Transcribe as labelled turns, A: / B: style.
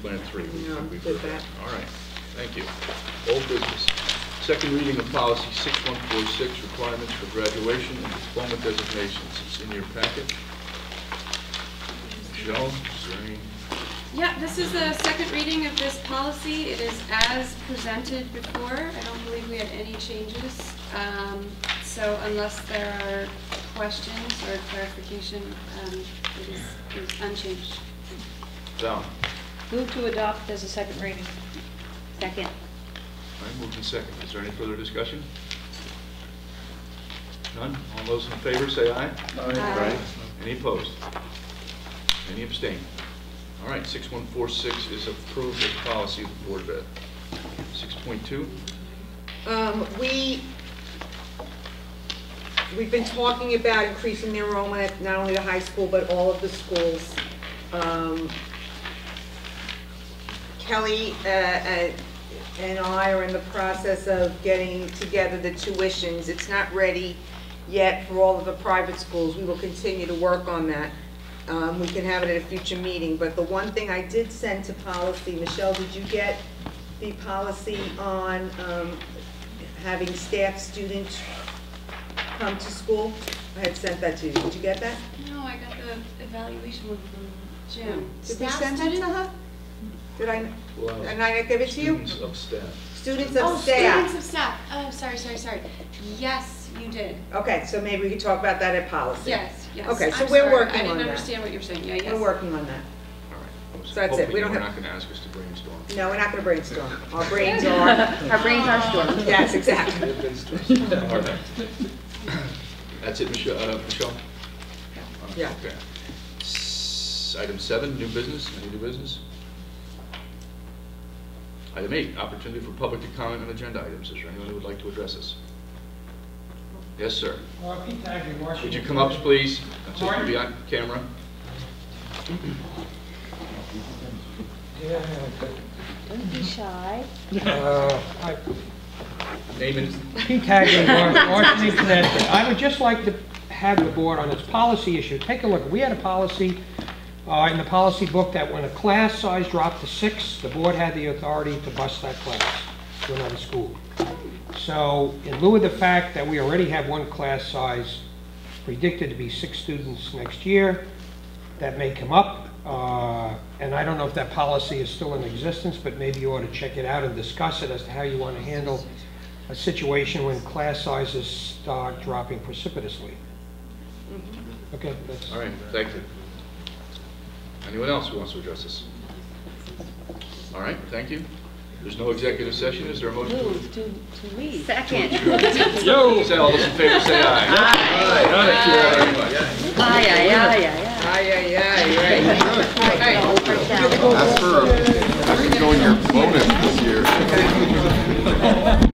A: Went three weeks.
B: No,
A: we
B: did
A: were-
B: that.
A: All right, thank you. Old business. Second reading of policy 6146, requirements for graduation and diploma designations. It's in your packet. Michelle, is there any?
C: Yeah, this is the second reading of this policy. It is as presented before. I don't believe we had any changes. Um, So unless there are questions or clarification, um, it is it is unchanged.
A: Val?
D: Move to adopt as a second reading. Second.
A: All right, moved in second. Is there any further discussion? None? All those in favor, say aye.
C: Aye.
A: Any opposed? Any abstain? All right, 6146 is approved as policy of the Board of Ed. 6.2?
B: Um, we, we've been talking about increasing the enrollment at not only the high school, but all of the schools. Um, Kelly, uh, uh, and I are in the process of getting together the tuitions. It's not ready yet for all of the private schools. We will continue to work on that. Um, we can have it at a future meeting, but the one thing I did send to policy, Michelle, did you get the policy on, um, having staff students come to school? I had sent that to you. Did you get that?
C: No, I got the evaluation one from Jim.
B: Did we send that to her? Did I,
A: Well,
B: did I not give it to you?
A: Oh, Students of staff.
B: Students
C: Oh,
B: of staff.
C: students of staff. Oh, sorry, sorry, sorry. Yes, you did.
B: Okay, so maybe we could talk about that at policy.
C: Yes, yes.
B: Okay, so
C: I'm
B: we're
C: sorry.
B: working
C: I
B: on
C: didn't
B: that.
C: understand what you were saying. Yeah, yes.
B: We're working on that.
A: All right. I was
B: So that's it.
A: hoping
B: We
A: you
B: don't
A: were
B: have-
A: not going to ask us to brainstorm.
B: No, we're not gonna brainstorm. Our brains are, our brains are storming. Yes, exactly.
A: All right. That's it, Michelle, uh, Michelle?
B: Yeah.
A: Okay. S- Item seven, new business, any new business? Item eight, opportunity for public to comment on agenda items. Is there anyone who would like to address us? Yes, sir.
E: Well, Pete Tagley, Washington.
A: Would you come up, please? That's just to be on camera.
E: Yeah,
D: Don't be shy.
E: uh, hi.
A: Name and,
E: Pete Tagley, Wa- Washington, Connecticut. I would just like to have the board on this policy issue. Take a look. We had a policy uh, in the policy book that when a class size dropped to six, the board had the authority to bust that class to another school. So in lieu of the fact that we already have one class size predicted to be six students next year, that may come up, uh, and I don't know if that policy is still in existence, but maybe you ought to check it out and discuss it as to how you want to handle a situation when class sizes start dropping precipitously. Okay, that's.
A: all right, thank you. Anyone else who wants to address us? All right, thank you. There's no executive session, is there a motion? to-
D: Move to, to leave.
F: Second.
A: Yo! Say, all those in favor, say aye. Aye. Aye. Thank you very much.
F: Aye, aye, aye, aye.
B: Aye, aye, aye, right.
F: All right.
A: That's for